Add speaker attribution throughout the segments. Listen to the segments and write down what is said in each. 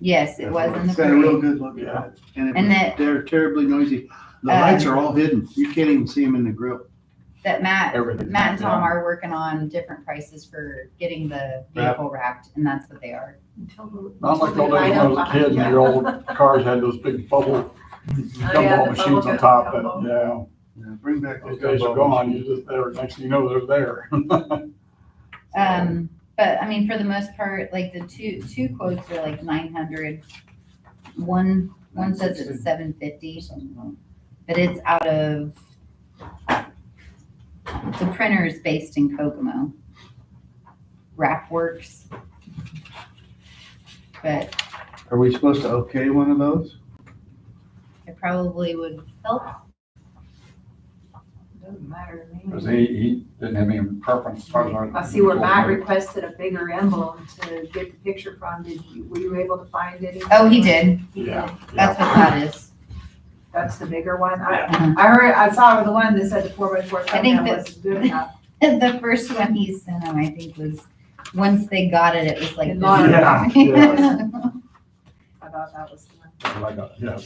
Speaker 1: Yes, it was in the
Speaker 2: It's got a
Speaker 1: parade.
Speaker 2: real good look at it. And
Speaker 1: And
Speaker 2: it,
Speaker 1: that-
Speaker 2: was- they're terribly noisy. The
Speaker 1: Uh,
Speaker 2: lights are all hidden. You can't even see them in the grill.
Speaker 1: That Matt,
Speaker 3: Everything.
Speaker 1: Matt and Tom are working on different prices for getting the vehicle wrapped and that's what they are.
Speaker 3: Not like all days when I was a kid, and your old cars had those big bubble
Speaker 4: Oh, yeah,
Speaker 3: gumball
Speaker 4: the
Speaker 3: machines
Speaker 4: bubble
Speaker 3: on top,
Speaker 4: gumball.
Speaker 3: and, yeah,
Speaker 2: Yeah, Bring back those
Speaker 3: those days are gone, you just, they're, next thing you know, they're there.
Speaker 1: Um, but I mean, for the most part, like the two, two quotes are like nine hundred. One, one says it's seven fifty, but it's out of, the printer is based in Kokomo. Wrap Works. But
Speaker 2: Are we supposed to okay one of those?
Speaker 1: it probably would help.
Speaker 4: Doesn't matter to
Speaker 3: Cause
Speaker 4: me.
Speaker 3: he, he didn't have any preference. as far as
Speaker 4: I see where Matt requested a bigger emblem to get the picture from. Did you, were you able to find any?
Speaker 1: Oh, he did.
Speaker 4: He did.
Speaker 3: Yeah.
Speaker 1: That's what that is.
Speaker 4: That's the bigger one. I,
Speaker 1: Uh-huh.
Speaker 4: I heard, I saw the one that said the four by four
Speaker 1: think
Speaker 4: thumbnail
Speaker 1: that-
Speaker 4: was good enough.
Speaker 1: The first one he sent him, I think, was, once they got it, it was like. this.
Speaker 3: Yeah, yeah.
Speaker 4: I thought that was the one.
Speaker 3: Like uh, a, yeah,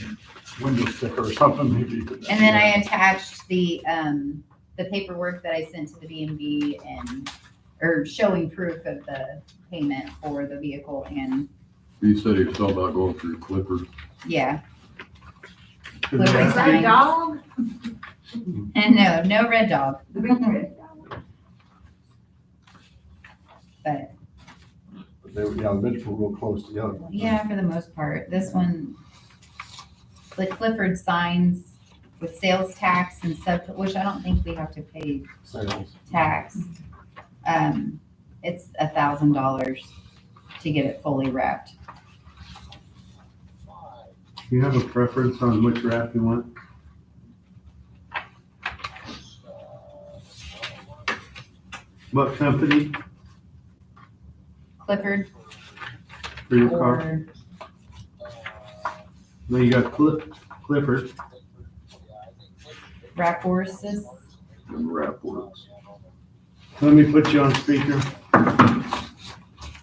Speaker 3: window sticker or something, maybe.
Speaker 1: And then I attached the, um, the paperwork that I sent to the B and B and, or showing proof of the payment for the vehicle and,
Speaker 5: He said he was talking about going through Clifford.
Speaker 1: yeah.
Speaker 4: Is that a
Speaker 1: Nice.
Speaker 4: dog?
Speaker 1: And no, no red dog,
Speaker 4: The big red dog?
Speaker 1: but
Speaker 3: They, were- yeah, the bids were real close together.
Speaker 1: yeah, for the most part, this one, the Clifford signs with sales tax and sub, which I don't think we have to pay
Speaker 3: Sales.
Speaker 1: tax. Um, it's a thousand dollars to get it fully wrapped.
Speaker 2: Do you have a preference on which wrap you want? What company
Speaker 1: Clifford
Speaker 2: for your car?
Speaker 1: or
Speaker 2: No, you got Cliff, Clifford.
Speaker 1: Wrap Horses.
Speaker 5: Them rap works.
Speaker 2: Let me put you on speaker.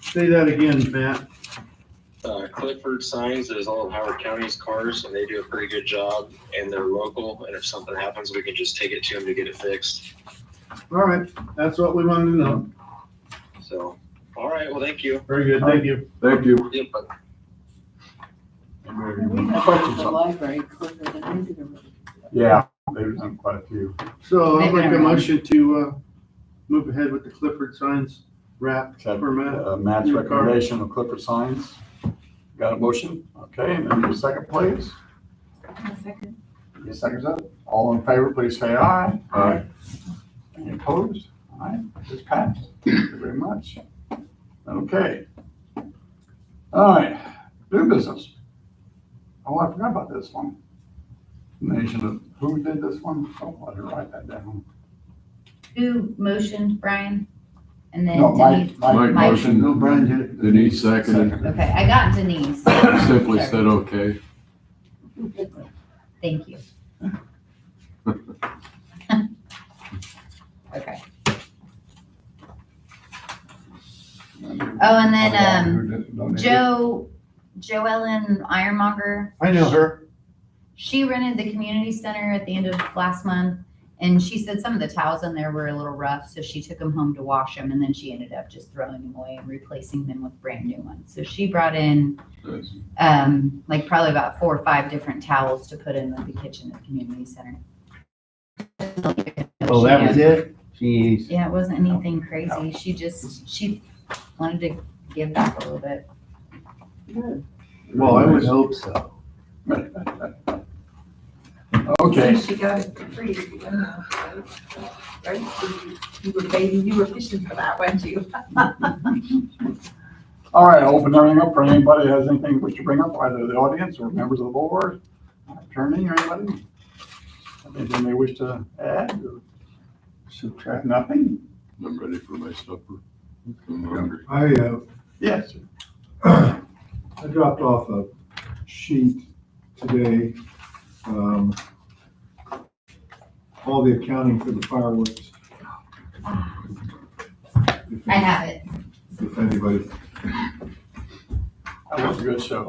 Speaker 2: Say that again, Matt.
Speaker 6: Uh, Clifford Signs is all of Howard County's cars, and they do a pretty good job, and they're local, and if something happens, we can just take it to them to get it fixed.
Speaker 2: All right, that's what we wanted to know.
Speaker 6: So, all right, well, thank you.
Speaker 2: Very good, thank you.
Speaker 5: Thank you.
Speaker 6: Yep, bye.
Speaker 3: I questioned something.
Speaker 7: library quicker than I do the road.
Speaker 3: Yeah, they've done quite a few.
Speaker 2: So I'll
Speaker 1: Maybe
Speaker 2: make a
Speaker 1: I'm wrong.
Speaker 2: motion to, uh, move ahead with the Clifford signs wrap
Speaker 3: Except,
Speaker 2: for Matt.
Speaker 3: uh, Matt's
Speaker 2: Your card.
Speaker 3: recommendation of Clifford Signs. Got a motion? Okay, and then the second, please.
Speaker 4: A second.
Speaker 3: Your second's up. All in favor, please say aye. Aye. Any opposed? Aye, it's passed. Thank you very much. Okay. All right, new business. Oh, I forgot about this one. Nation of, who did this one? Oh, I didn't write that down.
Speaker 1: Who motioned Brian? And then
Speaker 3: No, Mike,
Speaker 1: Uh, Denise.
Speaker 3: Mike
Speaker 5: Mike
Speaker 3: motioned.
Speaker 2: No, Brian did it.
Speaker 5: Denise seconded.
Speaker 1: Okay, I got Denise.
Speaker 5: Simply
Speaker 1: Sorry.
Speaker 5: said, okay.
Speaker 1: Thank you. Okay. Oh, and then, um,
Speaker 3: um,
Speaker 1: Joe, Joellen Ironmonger,
Speaker 2: I know her.
Speaker 1: she rented the community center at the end of last month. And she said some of the towels in there were a little rough, so she took them home to wash them and then she ended up just throwing them away and replacing them with brand new ones. So she brought in
Speaker 5: That's-
Speaker 1: um, like probably about four or five different towels to put in the kitchen at the community center.
Speaker 2: Oh, that was it? Jeez.
Speaker 1: Yeah, it wasn't anything crazy. She just, she wanted to give back a little bit.
Speaker 2: Well, I would hope so.
Speaker 3: Okay.
Speaker 4: She got it for free, you know, so, right? You- You were baby, you were fishing for that, weren't you?
Speaker 3: All right, I'll open everything up for anybody that has anything they wish to bring up, either the audience or members of the board, attorney or anybody. Anything they wish to add or subtract, nothing?
Speaker 5: I'm ready for my supper. I'm hungry.
Speaker 8: I, uh,
Speaker 3: Yes. sir.
Speaker 8: I dropped off a sheet today, um, all the accounting for the fireworks. If-
Speaker 1: I have it.
Speaker 8: If anybody
Speaker 3: That was a good show.